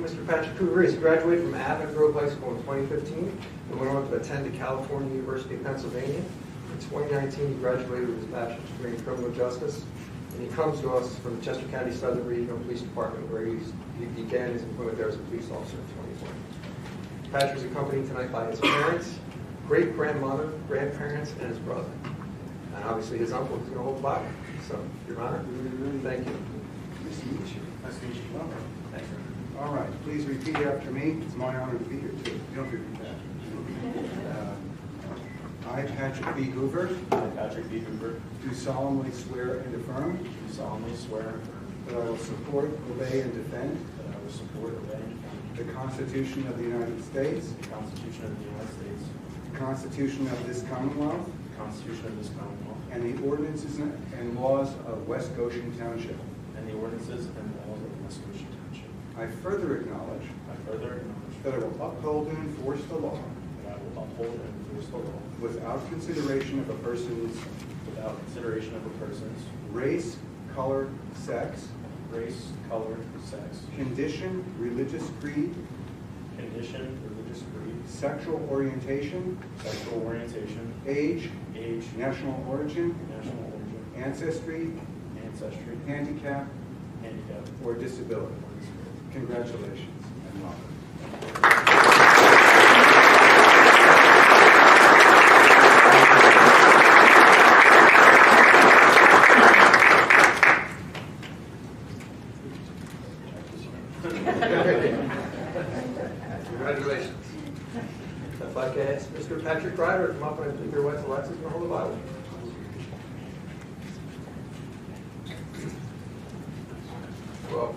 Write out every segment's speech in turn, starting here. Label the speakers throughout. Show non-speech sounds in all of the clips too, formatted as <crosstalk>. Speaker 1: Mr. Patrick Hoover is graduated from Abbott Grove High School in 2015 and went on to attend the California University of Pennsylvania. In 2019, he graduated with his bachelor's degree in criminal justice, and he comes to us from the Chester County Southern Regional Police Department, where he's- he began his employment there as a police officer in 2020. Patrick is accompanied tonight by his parents, great-grandmother, grandparents, and his brother. And obviously, his uncle is going to hold the Bible. So, Your Honor, thank you.
Speaker 2: Nice to meet you. Nice to meet you. Welcome.
Speaker 1: Thank
Speaker 2: All right, please repeat after me. It's my honor to be here too. You Don't repeat that. Uh, I, Patrick B. Hoover,
Speaker 3: I, Patrick B. Hoover,
Speaker 2: do solemnly swear and affirm
Speaker 3: do solemnly swear and affirm
Speaker 2: that I will support, obey, and defend
Speaker 3: that I will support, obey, and defend
Speaker 2: the Constitution of the United States,
Speaker 3: the Constitution of the United States,
Speaker 2: the Constitution of this Commonwealth,
Speaker 3: the Constitution of this Commonwealth,
Speaker 2: and the ordinances and laws of West Goshen Township.
Speaker 3: and the ordinances and laws of West Goshen Township.
Speaker 2: I further acknowledge
Speaker 3: I further acknowledge
Speaker 2: that I will uphold and enforce the law
Speaker 3: that I will uphold and enforce the law
Speaker 2: without consideration of a person's
Speaker 3: without consideration of a person's
Speaker 2: race, color, sex,
Speaker 3: race, color, sex,
Speaker 2: condition, religious creed,
Speaker 3: condition, religious creed,
Speaker 2: sexual orientation,
Speaker 3: sexual orientation,
Speaker 2: age,
Speaker 3: age,
Speaker 2: national origin,
Speaker 3: national origin,
Speaker 2: ancestry,
Speaker 3: ancestry,
Speaker 2: handicap,
Speaker 3: handicap,
Speaker 2: or disability.
Speaker 3: or disability.
Speaker 2: Congratulations and welcome.
Speaker 1: Congratulations. If I could ask Mr. Patrick Ryder to come up and give your wife Alexis and hold the Bible. Well,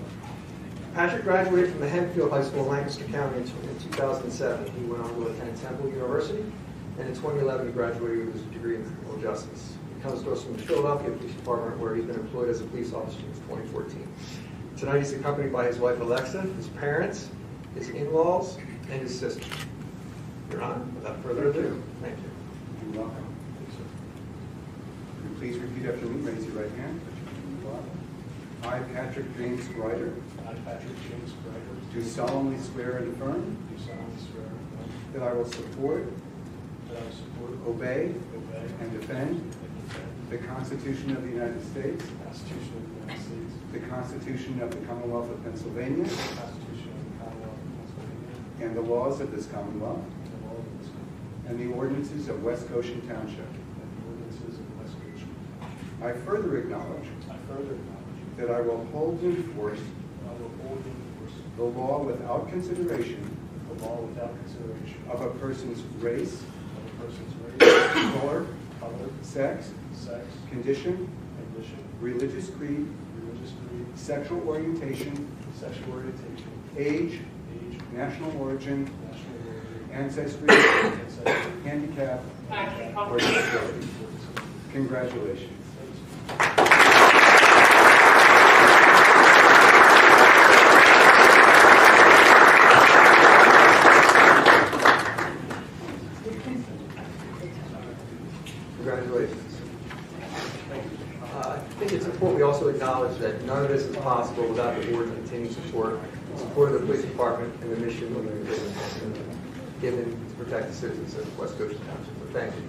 Speaker 1: Patrick graduated from the Hempfield High School in Lancaster County in 2007. He went on to attend Temple University, and in 2011, he graduated with his degree in criminal justice. He comes to us from the Philadelphia Police Department, where he's been employed as a police officer since 2014. Tonight, he's accompanied by his wife Alexa, his parents, his in-laws, and his sister. Your Honor, without further ado, thank you.
Speaker 2: And welcome. Will you Please repeat after me, raise your right hand. I, Patrick James Ryder,
Speaker 4: I, Patrick James Greider,
Speaker 2: do solemnly swear and affirm
Speaker 4: do solemnly swear and affirm
Speaker 2: that I will support,
Speaker 4: that I will support,
Speaker 2: obey,
Speaker 4: obey,
Speaker 2: and defend
Speaker 4: and defend
Speaker 2: the Constitution of the United States,
Speaker 4: the Constitution of the United States,
Speaker 2: the Constitution of the Commonwealth of Pennsylvania,
Speaker 4: the Constitution of the Commonwealth of Pennsylvania,
Speaker 2: and the laws of this Commonwealth,
Speaker 4: and the laws of this country,
Speaker 2: and the ordinances of West Goshen Township.
Speaker 4: and the ordinances of West Virginia.
Speaker 2: I further acknowledge
Speaker 4: I further acknowledge
Speaker 2: that I will hold and enforce
Speaker 4: that I will hold and enforce
Speaker 2: the law without consideration
Speaker 4: the law without consideration
Speaker 2: of a person's race,
Speaker 4: of a person's race,
Speaker 2: color,
Speaker 4: color,
Speaker 2: sex,
Speaker 4: sex,
Speaker 2: condition,
Speaker 4: condition,
Speaker 2: religious creed,
Speaker 4: religious creed,
Speaker 2: sexual orientation,
Speaker 4: sexual orientation,
Speaker 2: age,
Speaker 4: age,
Speaker 2: national origin,
Speaker 4: national origin,
Speaker 2: ancestry, <coughs>
Speaker 4: ancestry,
Speaker 2: handicap,
Speaker 4: and
Speaker 2: or disability.
Speaker 4: or disability.
Speaker 2: Congratulations.
Speaker 1: Congratulations. Uh, I think it's important we also acknowledge that none of this is possible without the board's continued support, support of the police department and the mission we've been given, given to protect the citizens of West Goshen Township. So thank you.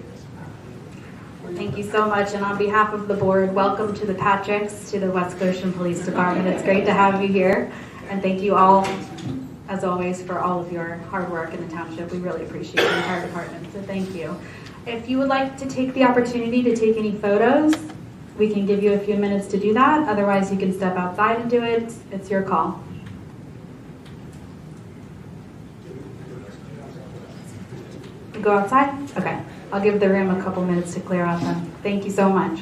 Speaker 5: Thank you so much, and on behalf of the board, welcome to the Patricks, to the West Goshen Police Department. It's great to have you here, and thank you all, as always, for all of your hard work in the township. We really appreciate the entire department, so thank you. If you would like to take the opportunity to take any photos, we can give you a few minutes to do that. Otherwise, you can step outside and do it. It's your call. Go outside? Okay. I'll give the room a couple minutes to clear out then. Thank you so much.